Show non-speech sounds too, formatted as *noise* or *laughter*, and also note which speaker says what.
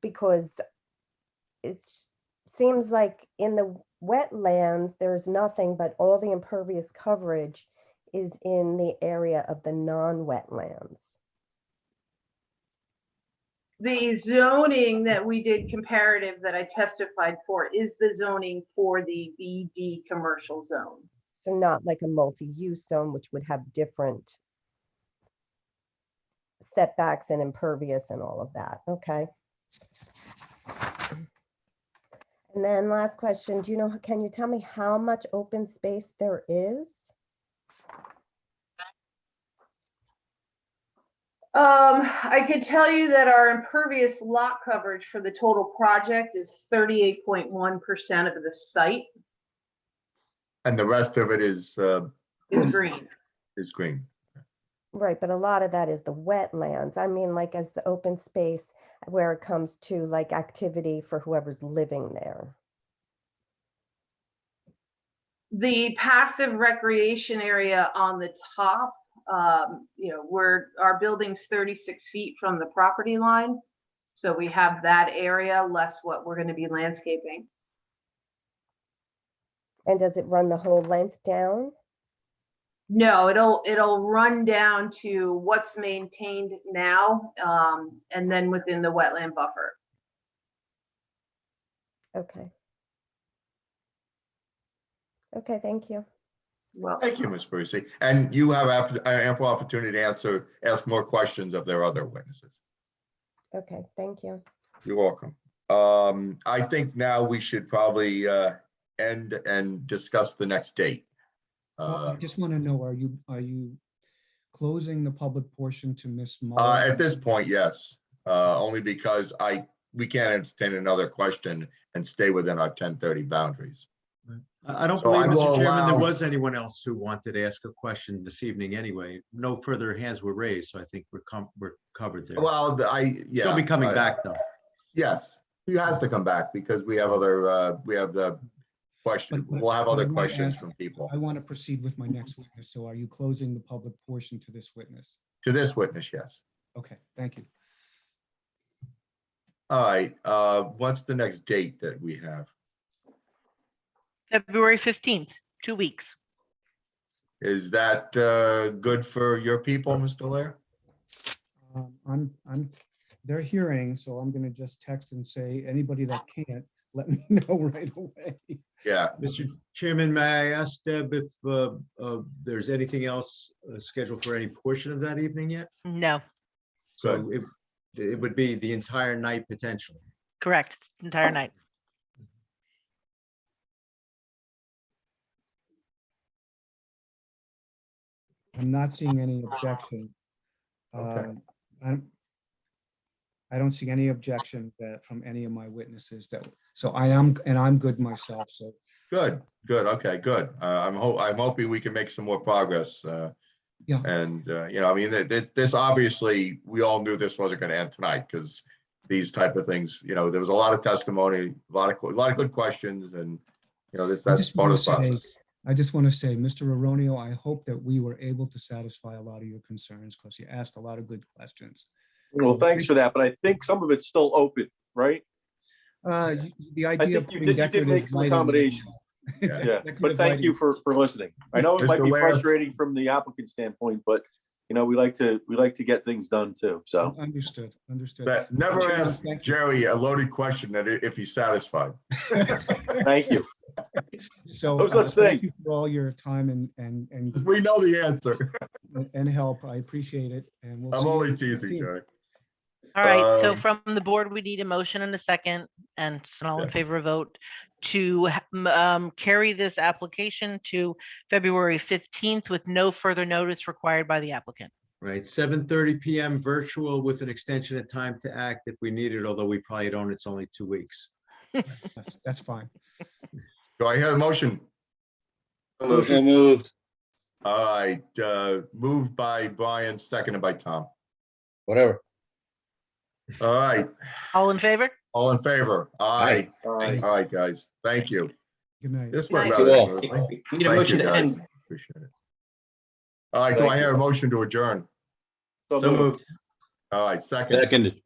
Speaker 1: because it's, seems like in the wetlands, there's nothing, but all the impervious coverage is in the area of the non-wetlands.
Speaker 2: The zoning that we did comparative that I testified for is the zoning for the BD commercial zone.
Speaker 1: So not like a multi-use zone, which would have different setbacks and impervious and all of that, okay? And then last question, do you know, can you tell me how much open space there is?
Speaker 2: Um, I could tell you that our impervious lot coverage for the total project is thirty-eight point one percent of the site
Speaker 3: And the rest of it is, uh,
Speaker 2: is green.
Speaker 3: is green.
Speaker 1: Right, but a lot of that is the wetlands. I mean, like as the open space where it comes to like activity for whoever's living there.
Speaker 2: The passive recreation area on the top, um, you know, where our building's thirty-six feet from the property line. So we have that area less what we're gonna be landscaping.
Speaker 1: And does it run the whole length down?
Speaker 2: No, it'll, it'll run down to what's maintained now, um, and then within the wetland buffer.
Speaker 1: Okay. Okay, thank you.
Speaker 2: Well,
Speaker 3: Thank you, Ms. Parisi. And you have app- uh, ample opportunity to answer, ask more questions of their other witnesses.
Speaker 1: Okay, thank you.
Speaker 3: You're welcome. Um, I think now we should probably, uh, end and discuss the next date.
Speaker 4: Well, I
Speaker 3: Uh,
Speaker 4: just want to know, are you, are you closing the public portion to Ms.
Speaker 3: uh,
Speaker 4: Muller?
Speaker 3: at this point, yes, uh, only because I, we can't entertain another question and stay within our ten thirty boundaries.
Speaker 5: I I don't
Speaker 3: So I
Speaker 5: believe,
Speaker 3: will
Speaker 5: Mr. Chairman, there
Speaker 3: allow-
Speaker 5: was anyone else who wanted to ask a question this evening anyway. No further hands were raised, so I think we're com, we're covered there.
Speaker 3: Well, the- I, yeah.
Speaker 5: They'll be coming
Speaker 3: I-
Speaker 5: back, though.
Speaker 3: Yes, he has to come back because we have other, uh, we have the question,
Speaker 4: But- but-
Speaker 3: we'll have
Speaker 4: but I
Speaker 3: other
Speaker 4: wanna
Speaker 3: questions
Speaker 4: ask-
Speaker 3: from people.
Speaker 4: I want to proceed with my next witness, so are you closing the public portion to this witness?
Speaker 3: To this witness, yes.
Speaker 4: Okay, thank you.
Speaker 3: All right, uh, what's the next date that we have?
Speaker 6: February 15th, two weeks.
Speaker 3: Is that, uh, good for your people, Mr. Lair?
Speaker 4: Um, I'm, I'm, they're hearing, so I'm going to just text and say, anybody that can't, let me *laughs* know right away.
Speaker 3: Yeah,
Speaker 5: Mr. Chairman, may I ask Deb if uh, uh, there's anything else uh, scheduled for any portion of that evening yet?
Speaker 6: No,
Speaker 5: So it, it would be the entire night potentially.
Speaker 6: correct, entire night.
Speaker 4: I'm not seeing any objection.
Speaker 3: Okay.
Speaker 4: Uh, I don't, I don't see any objection that, from any of my witnesses that, so I am, and I'm good myself, so
Speaker 3: good, good, okay, good. Uh, I'm ho, I'm hoping we can make some more progress, uh.
Speaker 4: Yeah.
Speaker 3: And, uh, you know, I mean, th- this, this obviously, we all knew this wasn't gonna end tonight, because these type of things, you know, there was a lot of testimony, a lot of, que- a lot of good questions, and, you know, this,
Speaker 4: I
Speaker 3: that's
Speaker 4: just
Speaker 3: part of
Speaker 4: wanna
Speaker 3: the
Speaker 4: say-
Speaker 3: process.
Speaker 4: I just want to say, Mr. Aronio, I hope that we were able to satisfy a lot of your concerns because you asked a lot of good questions.
Speaker 7: Well, thanks for that, but I think some of it's still open, right?
Speaker 4: Uh, y- The
Speaker 7: I
Speaker 4: idea. of
Speaker 7: think you
Speaker 4: putting
Speaker 7: did, you did
Speaker 4: decorative
Speaker 7: make some
Speaker 4: lighting- *laughs*
Speaker 7: accommodations.
Speaker 3: Yeah.
Speaker 7: Yeah, but
Speaker 4: decorative
Speaker 7: thank you
Speaker 4: lighting-
Speaker 7: for, for listening. I know it might
Speaker 3: Mr.
Speaker 7: be
Speaker 3: Ware.
Speaker 7: frustrating from the applicant standpoint, but you know, we like to, we like to get things done too,
Speaker 4: *laughs*
Speaker 7: so.
Speaker 4: Understood, understood.
Speaker 3: But never
Speaker 4: Chairman,
Speaker 3: ask
Speaker 4: thank you.
Speaker 3: Jerry a loaded question that i- if he's satisfied.
Speaker 7: Thank you.
Speaker 4: So.
Speaker 7: no
Speaker 4: uh,
Speaker 7: such
Speaker 4: thank
Speaker 7: thing.
Speaker 4: you For all your time and, and, and,
Speaker 3: We know the answer.
Speaker 4: and help. I appreciate it and we'll.
Speaker 3: I'm
Speaker 4: see you on
Speaker 3: only
Speaker 4: the
Speaker 3: teasing,
Speaker 4: 15th.
Speaker 3: Jerry.
Speaker 6: All right, so
Speaker 3: Um,
Speaker 6: from the board, we need a motion and a second, and it's an all in
Speaker 3: Yeah.
Speaker 6: favor vote to ha- m- um, carry this application to February 15th with no further notice required by the applicant.
Speaker 5: Right, seven thirty PM virtual with an extension of time to act if we need it, although we probably don't, it's only two weeks.
Speaker 4: That's, that's fine.
Speaker 3: Do I hear a motion?
Speaker 5: Motion.
Speaker 8: moved.
Speaker 3: All right, uh, moved by Brian, seconded by Tom.
Speaker 8: Whatever.
Speaker 3: All right,
Speaker 6: All in favor?
Speaker 3: all in favor? Aye.
Speaker 7: Bye.
Speaker 3: All right, guys, thank you.
Speaker 4: Good night.
Speaker 3: This went
Speaker 2: Thank
Speaker 3: rather
Speaker 8: you all.
Speaker 3: smoothly.
Speaker 8: Need a
Speaker 3: Thank
Speaker 8: motion
Speaker 3: you,
Speaker 8: to
Speaker 3: guys.
Speaker 8: end.
Speaker 3: Appreciate it. All right, do I hear a motion to adjourn?
Speaker 5: So moved.
Speaker 3: All right, second.
Speaker 8: Seconded.